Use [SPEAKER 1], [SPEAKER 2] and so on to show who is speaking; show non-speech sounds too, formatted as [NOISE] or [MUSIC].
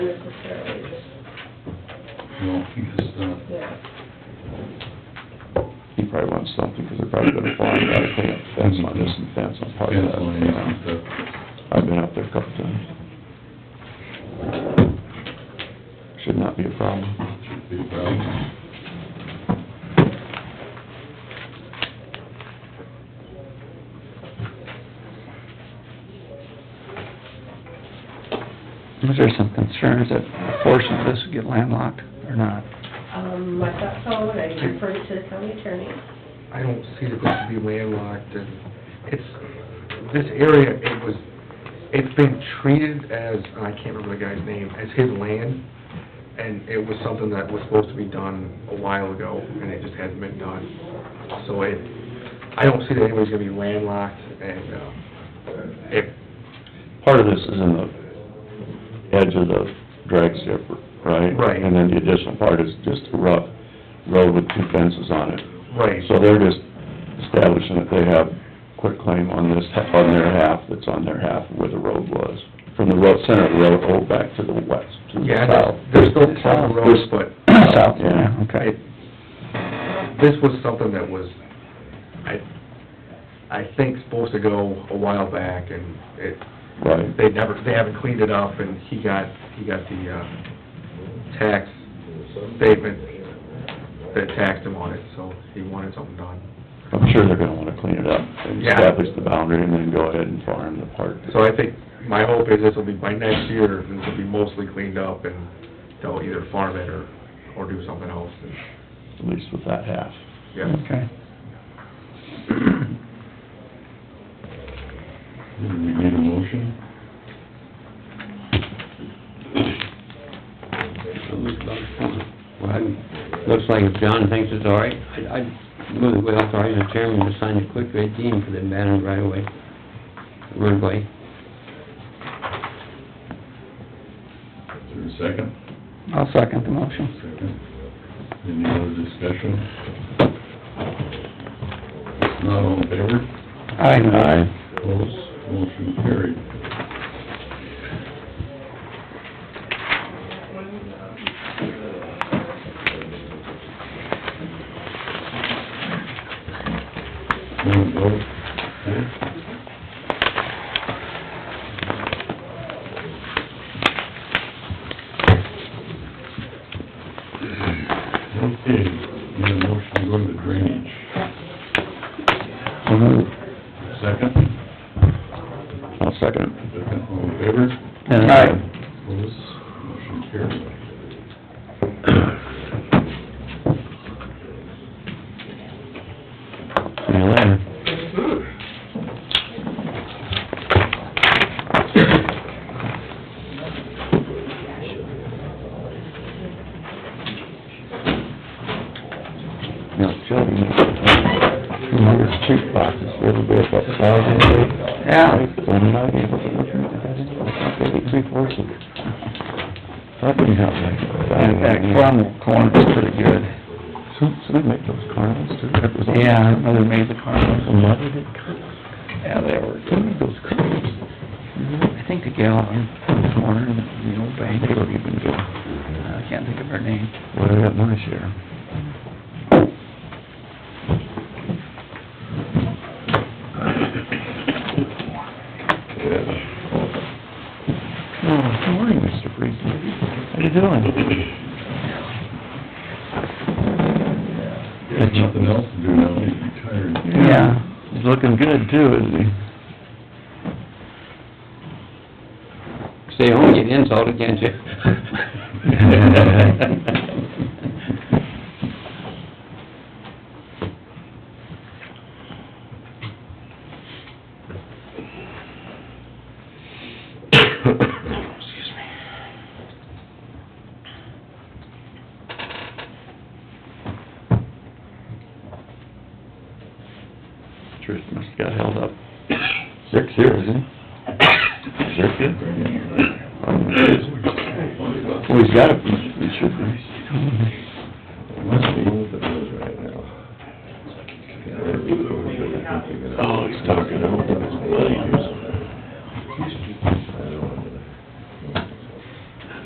[SPEAKER 1] No, because, uh,
[SPEAKER 2] Yeah.
[SPEAKER 3] He probably wants something, because they're probably gonna fly, you gotta clean up the fence on this and fence on part of
[SPEAKER 1] fence
[SPEAKER 3] that.
[SPEAKER 1] lines and stuff.
[SPEAKER 3] I've been up there a couple times. Should not be a problem.
[SPEAKER 1] Should be a problem.
[SPEAKER 4] Was there some concerns that a portion of this would get landlocked or not?
[SPEAKER 2] Um, I thought so, and I referred it to the county attorney.
[SPEAKER 5] I don't see that this should be landlocked, and it's, this area, it was, it's been treated as, and I can't remember the guy's name, as his land, and it was something that was supposed to be done a while ago, and it just hasn't been done. So it, I don't see that anybody's gonna be landlocked, and, uh, if,
[SPEAKER 3] Part of this is in the edge of the drag strip, right?
[SPEAKER 5] Right.
[SPEAKER 3] And then the additional part is just a rough road with two fences on it.
[SPEAKER 5] right,
[SPEAKER 3] So they're just establishing that they have quit claim on this, on their half, that's on their half where the road was. From the road, center of the road, all back to the west, to the
[SPEAKER 5] yeah,
[SPEAKER 3] south.
[SPEAKER 5] there's- there's still town roads, but
[SPEAKER 4] South, yeah,
[SPEAKER 5] it,
[SPEAKER 4] okay.
[SPEAKER 5] this was something that was, I, I think supposed to go a while back, and it,
[SPEAKER 3] Right.
[SPEAKER 5] they never, they haven't cleaned it up, and he got, he got the, uh, tax statement that taxed him on it, so he wanted something done.
[SPEAKER 3] I'm sure they're gonna wanna clean it up and
[SPEAKER 5] Yeah.
[SPEAKER 3] establish the boundary and then go ahead and farm the part.
[SPEAKER 5] So I think, my hope is this will be, by next year, this will be mostly cleaned up, and they'll either farm it or, or do something else, and,
[SPEAKER 3] At least with that half.
[SPEAKER 5] yeah.
[SPEAKER 4] Okay.
[SPEAKER 1] Do we need a motion?
[SPEAKER 6] Well, it looks like if John thinks it's all right, I- I'd move that we authorize the chairman to sign a quick rate deed for the abandoned right away, roadway.
[SPEAKER 1] Is there a second?
[SPEAKER 4] I'll second the motion.
[SPEAKER 1] Second. Any other discussion? Not all in favor?
[SPEAKER 4] Aye.
[SPEAKER 1] Opposed? Motion carried. Want to vote? Okay, need a motion to go into drainage.
[SPEAKER 3] So moved.
[SPEAKER 1] Second?
[SPEAKER 3] I'll second.
[SPEAKER 1] Second, all in favor?
[SPEAKER 3] Aye.
[SPEAKER 1] Opposed, motion carried.
[SPEAKER 3] See you later. Now, Jody, remember the cheap boxes, everybody about thousand eight?
[SPEAKER 4] Yeah.
[SPEAKER 3] So I'm not able to look at that anymore, I'll give you three fourths of it. That didn't help me.
[SPEAKER 4] In fact, Cromwell Corner is pretty good.
[SPEAKER 3] So, so they make those carnivals too? That was all-
[SPEAKER 4] Yeah, I know they made the Carmels.
[SPEAKER 3] And why did it cut?
[SPEAKER 4] Yeah, they were
[SPEAKER 3] They
[SPEAKER 4] good.
[SPEAKER 3] made those carnivals.
[SPEAKER 4] I think the gal in the corner, in the old bank, Uh,
[SPEAKER 3] They don't even go,
[SPEAKER 4] I can't think of her name.
[SPEAKER 3] well, I got my
[SPEAKER 4] [COUGHS]
[SPEAKER 3] share. Oh, good morning, Mr. Friesen. How you doing?
[SPEAKER 1] There's nothing else to do now, he's retired.
[SPEAKER 4] Yeah.
[SPEAKER 3] He's looking good too, isn't he?
[SPEAKER 6] Stay home, get insulted, can't you?
[SPEAKER 3] [LAUGHS]
[SPEAKER 6] [LAUGHS]
[SPEAKER 3] Trish must have got held up. Zerk's here, isn't he? Zerk here? Well, Oh, he's got it, he should be.
[SPEAKER 1] Must be what it is right now.
[SPEAKER 3] Oh, he's talking over